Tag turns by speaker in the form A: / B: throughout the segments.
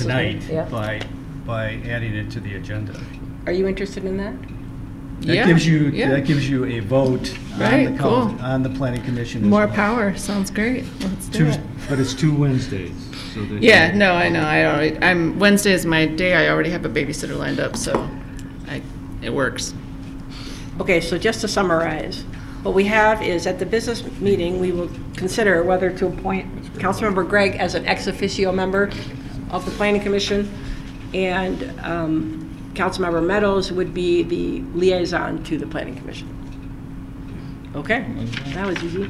A: tonight
B: Yeah.
A: by, by adding it to the agenda.
B: Are you interested in that?
C: Yeah,
A: That gives you,
C: yeah.
A: that gives you a vote on the,
C: Right,
A: coun-
C: cool.
A: on the planning commission. as
C: More
A: well.
C: power, sounds great. Let's do
D: Two,
C: it.
D: but it's two Wednesdays, so that.
C: Yeah, no, I know, I already, I'm, Wednesday is my day, I already have a babysitter lined up, so I, it works.
B: Okay, so just to summarize, what we have is at the business meeting, we will consider whether to appoint Councilmember Gregg as an ex officio member of the Planning Commission, and um, Councilmember Meadows would be the liaison to the Planning Commission. Okay, that was easy.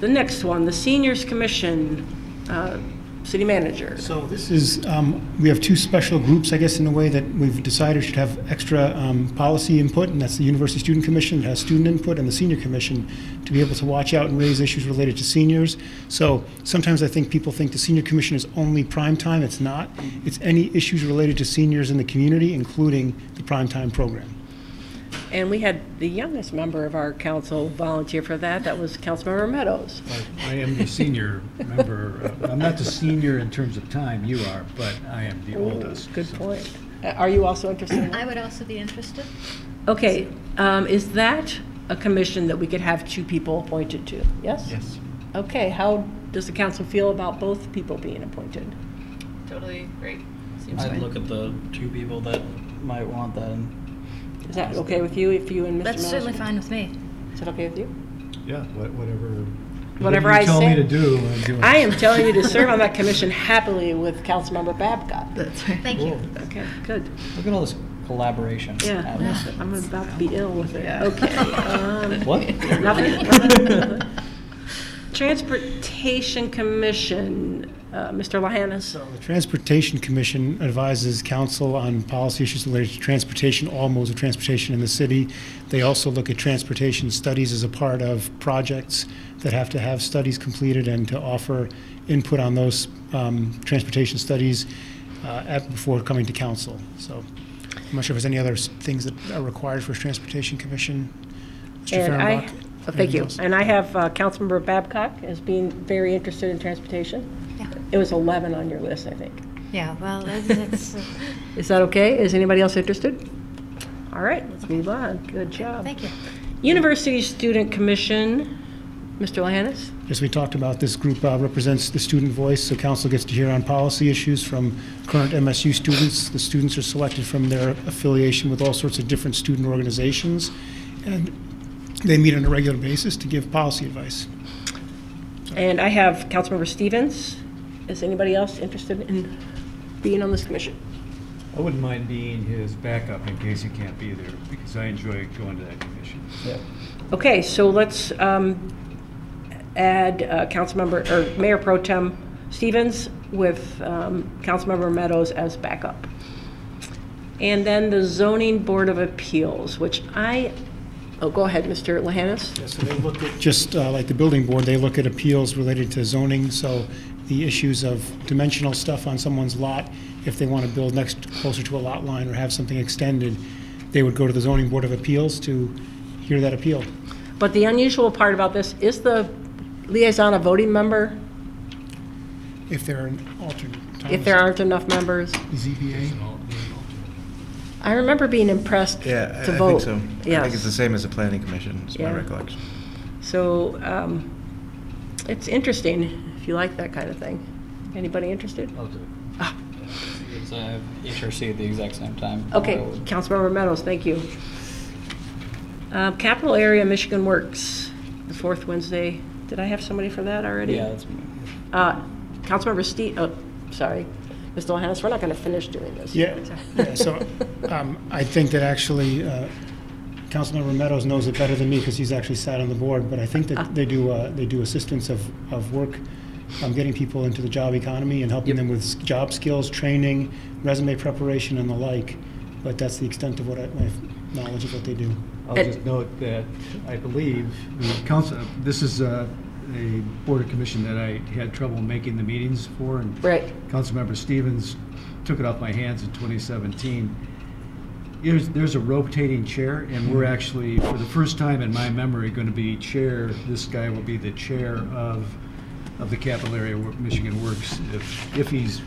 B: The next one, the Seniors Commission, uh, City Manager.
E: So this is, um, we have two special groups, I guess, in a way that we've decided should have extra um, policy input, and that's the University Student Commission that has student input, and the Senior Commission to be able to watch out and raise issues related to seniors. So sometimes I think people think the Senior Commission is only prime time. It's not. It's any issues related to seniors in the community, including the prime time program.
B: And we had the youngest member of our council volunteer for that, that was Councilmember Meadows.
A: I am the senior member, uh, I'm not the senior in terms of time, you are, but I am the oldest.
B: Good
A: so.
B: point. Uh, Are you also interested? in that?
F: I would also be interested.
B: Okay, um, is that a commission that we could have two people appointed to? Yes?
A: Yes.
B: Okay, how does the council feel about both people being appointed?
C: Totally great.
G: I'd look at the two people that might want that. And
B: Is that okay with you, if you and Mr. Meadows?
F: That's certainly fine with me.
B: Is that okay with you?
A: Yeah, wha- whatever.
B: Whatever
A: you
B: I
A: Tell me
B: say.
A: to do, I'm doing.
B: I am telling you to serve on that commission happily with Councilmember Babcock.
C: That's right.
F: Thank you.
B: Okay, good.
G: look at all this collaboration.
B: Yeah,
G: happening.
B: I'm about to be ill with it.
C: Yeah.
B: Okay. um,
G: What?
B: Nothing? Transportation Commission, uh, Mr. Lyons.
E: The Transportation Commission advises council on policy issues related to transportation, all modes of transportation in the city. They also look at transportation studies as a part of projects that have to have studies completed and to offer input on those um, transportation studies uh, at- before coming to council. So I'm not sure if there's any other s- things that are required for a Transportation Commission. Mr.
B: And I-
E: Fehrenbach?
B: oh, Thank
E: anything
B: you.
E: else?
B: And I have uh, Councilmember Babcock as being very interested in transportation.
F: Yeah.
B: It was 11 on your list, I think.
F: Yeah, well, that's, that's-
B: Is that okay? Is anybody else interested? All right, let's move on. Good job.
F: thank you.
B: University Student Commission, Mr. Lyons.
E: As we talked about, this group uh, represents the student voice, so council gets to hear on policy issues from current MSU students. The students are selected from their affiliation with all sorts of different student organizations, and they meet on a regular basis to give policy advice.
B: And I have Councilmember Stevens. Is anybody else interested in being on this commission?
A: I wouldn't mind being his backup in case he can't be there, because I enjoy going to that commission.
B: Okay, so let's um, add uh, Councilmember, or Mayor Pro Tem Stevens with um, Councilmember Meadows as backup. And then the Zoning Board of Appeals, which I, oh, go ahead, Mr. Lahanis.
E: So they look at, just uh, like the building board, they look at appeals related to zoning, so the issues of dimensional stuff on someone's lot, if they want to build next, closer to a lot line or have something extended, they would go to the zoning board of appeals to hear that appeal.
B: But the unusual part about this, is the liaison a voting member
E: If they're an alternate. E Tom
B: if
E: is-
H: Mm-hmm.
B: there aren't enough members?
E: ZBA,
B: I remember being impressed
H: Yeah, I-
B: to
H: I
B: vote.
H: think so. I think it's the same as the planning commission, is my
B: Yeah.
H: recollection.
B: So um, it's interesting if you like that kind of thing. Anybody interested? Ah,
G: I'll do it. Because I have HRC at the exact same time.
B: Okay,
G: So-
B: Councilmember Meadows, thank you. Uh, Capital Area Michigan Works, the fourth Wednesday. Did I have somebody for that already?
G: Yeah, that's me.
B: Uh, Councilmember Steve, oh, sorry, Mr. Johannes, we're not going to finish doing this.
E: Yeah, yeah, so um, I think that actually, uh, Councilmember Meadows knows it better than me because he's actually sat on the board, but I think
B: Ah.
E: that they do, uh, they do assistance of, of work, um, getting people into the job economy and helping them with s- job skills, training, resume preparation and the like, but that's the extent of what I, my knowledge of what they do.
A: I'll
B: And-
A: just note that I believe the council, this is uh, a board of commission that I had trouble making the meetings for, and
B: Right.
A: Councilmember Stevens took it off my hands in 2017. There's, there's a rotating chair, and we're actually, for the first time in my memory, going to be chair, this guy will be the chair of, of the Capital Area Wo- Michigan Works, if, if he's